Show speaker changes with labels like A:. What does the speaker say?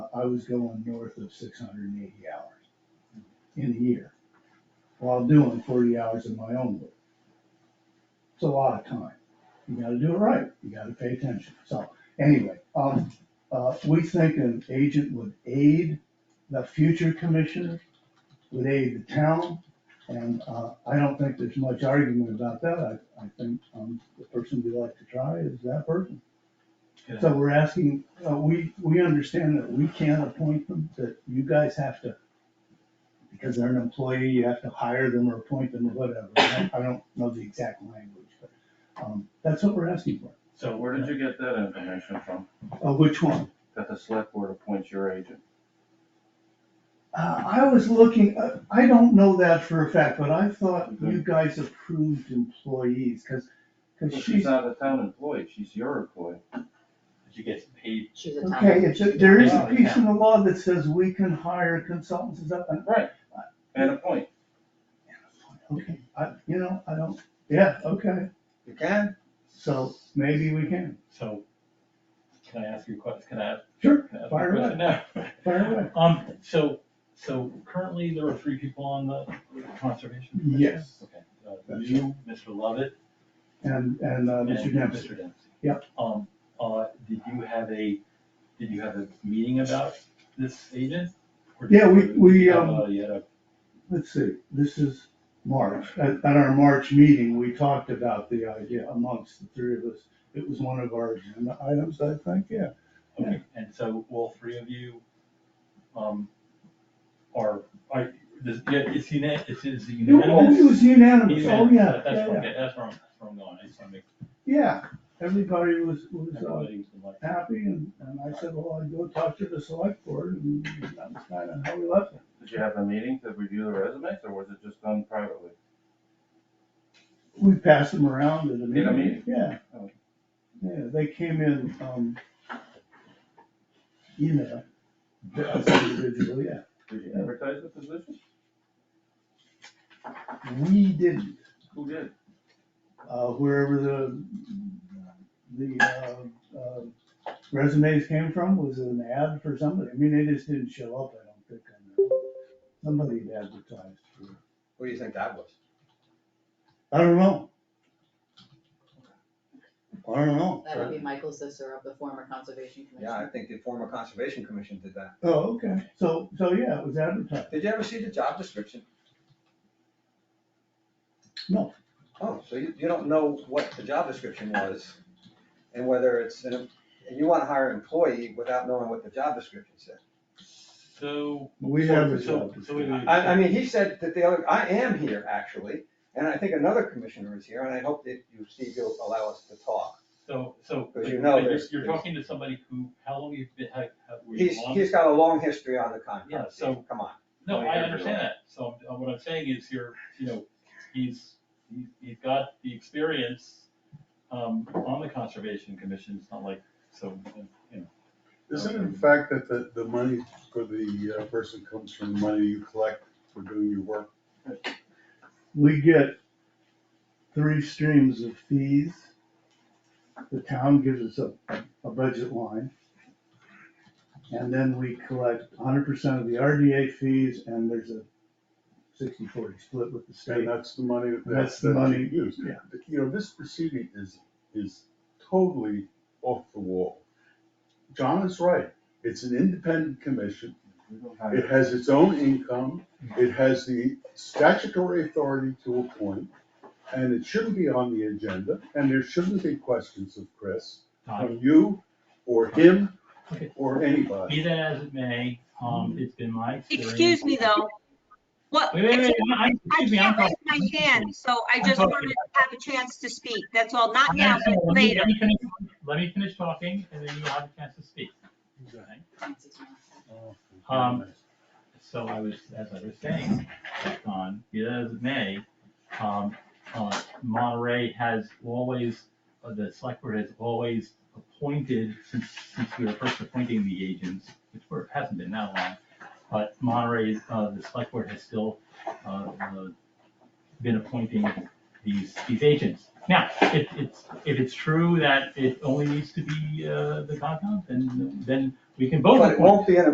A: I was going north of six hundred and eighty hours in a year while doing forty hours of my own work. It's a lot of time. You gotta do it right. You gotta pay attention. So anyway, um, uh, we think an agent would aid the future commissioner, would aid the town. And, uh, I don't think there's much argument about that. I, I think, um, the person we like to try is that person. So we're asking, uh, we, we understand that we can't appoint them, that you guys have to, because they're an employee, you have to hire them or appoint them or whatever. I I don't know the exact language, but, um, that's what we're asking for.
B: So where did you get that information from?
A: Uh, which one?
B: That the select board appoints your agent?
A: Uh, I was looking, uh, I don't know that for a fact, but I thought you guys approved employees, cause, cause
B: She's
A: she's,
B: not a town employee, she's your employee.
C: She gets paid.
D: She's a town.
A: okay, it's, there is a piece in the law that says we can hire consultants and stuff, and
B: Right. And appoint.
A: Okay, I, you know, I don't, yeah, okay,
C: You can.
A: so maybe we can,
E: So, can I ask you a question, can I ask?
A: Sure,
E: can I ask a
A: fire away.
E: question now?
A: fire away.
E: Um, so, so currently there are three people on the conservation commission?
A: Yes.
E: Okay, uh, you, Mr. Lovett.
A: And, and, uh, Mr.
E: and
A: Dempsey,
E: Mr. Dempsey.
A: Yep.
E: Um, uh, did you have a, did you have a meeting about this agent? Or did
A: Yeah, we-
E: you
A: we,
E: have
A: um,
E: a- You had a,
A: let's see, this is March, at, at our March meeting, we talked about the idea amongst the three of us. It was one of our agenda items, I think, yeah,
E: okay, and so all three of you, um, are, are, this, yeah, it's unan, it's, it's
A: it was it
E: unanimous?
A: was unanimous, oh,
E: Unanimous,
A: yeah,
E: that- That's
A: yeah,
E: where, I'm
A: yeah,
E: get- that's where I'm, that's where I'm going, I just wanna make
A: yeah, everybody was, was, uh,
E: everybody was like.
A: happy, and, and I said, well, I'd go talk to the select board, and that was kinda how we left it.
B: Did you have a meeting to review the resumes or was it just done privately?
A: We passed them around at a meeting.
B: In a meeting?
A: Yeah.
B: Oh.
A: Yeah, they came in, um, email, us individually, yeah.
B: Did you advertise the position?
A: We didn't,
B: Who did?
A: uh, wherever the, the, uh, uh, resumes came from was an ad for somebody. I mean, they just didn't show up, I don't think, on their own. Somebody had advertised for,
C: What do you think that was?
A: I don't know. I don't know.
D: That would be Michael Sisser of the former Conservation
C: Yeah, I
D: Commission.
C: think the former conservation commission did that.
A: Oh, okay, so, so, yeah, it was advertised.
C: Did you ever see the job description?
A: No.
C: Oh, so you, you don't know what the job description was and whether it's, an em- and you wanna hire an employee without knowing what the job description said.
E: So.
A: We
E: so-
A: have a
E: so-
A: job
E: So wait, wait,
C: I, I mean, he said that the other, I am here actually, and I think another commissioner is here, and I hope that you, Steve, you'll allow us to talk.
E: so, so.
C: Because
E: but-
C: you know
E: but you're,
C: there's-
E: you're
C: there's-
E: talking to somebody who, how long you've been, how, how, were you
C: He's,
E: on?
C: he's got a long history on the
E: Yeah,
C: contract,
E: so-
C: Steve, come on.
E: No,
B: Oh,
E: I
B: yeah,
E: understand
B: yeah.
E: that, so uh, what I'm saying is you're, you know, he's, he's, he's got the experience, um, on the conservation commission, it's not like, so, you know.
F: Isn't it in fact that the, the money for the uh, person comes from the money you collect for doing your work?
A: we get three streams of fees. The town gives us a, a budget line. And then we collect hundred percent of the RDA fees and there's a 60-40 split with the
F: And
A: state.
F: that's the money that.
A: That's the
F: that you
A: money,
F: use.
A: yeah.
F: You know, this proceeding is, is totally off the wall. John is right. It's an independent commission.
B: We don't
F: It
B: hire.
F: has its own income. It has the statutory authority to appoint. And it shouldn't be on the agenda and there shouldn't be questions of Chris
E: Todd,
F: from you or him
E: Okay.
F: or anybody.
E: Be that as it may, um, it's been my experience.
G: Excuse me, though. What?
E: Wait, wait, wait, I,
G: I
E: excuse me, I'm
G: can't raise
E: talking.
G: my hand, so I
E: I'm
G: just
E: talking.
G: wanted to have a chance to speak. That's all, not
E: I'm
G: now,
E: sorry,
G: but
E: let me-
G: later.
E: Let me finish, let me finish talking, and then you'll have a chance to speak. Okay. Um, So I was, as I was saying, Don, be that as it may, um, uh, Monterey has always, uh, the select board has always appointed, since, since we were first appointing the agents, which were, hasn't been that long, but Monterey, uh, the select board has still, uh, uh, been appointing these, these agents. Now, if it's, if it's true that it only needs to be, uh, the Concom, then, then we can both
C: But it
E: appoint.
C: won't be an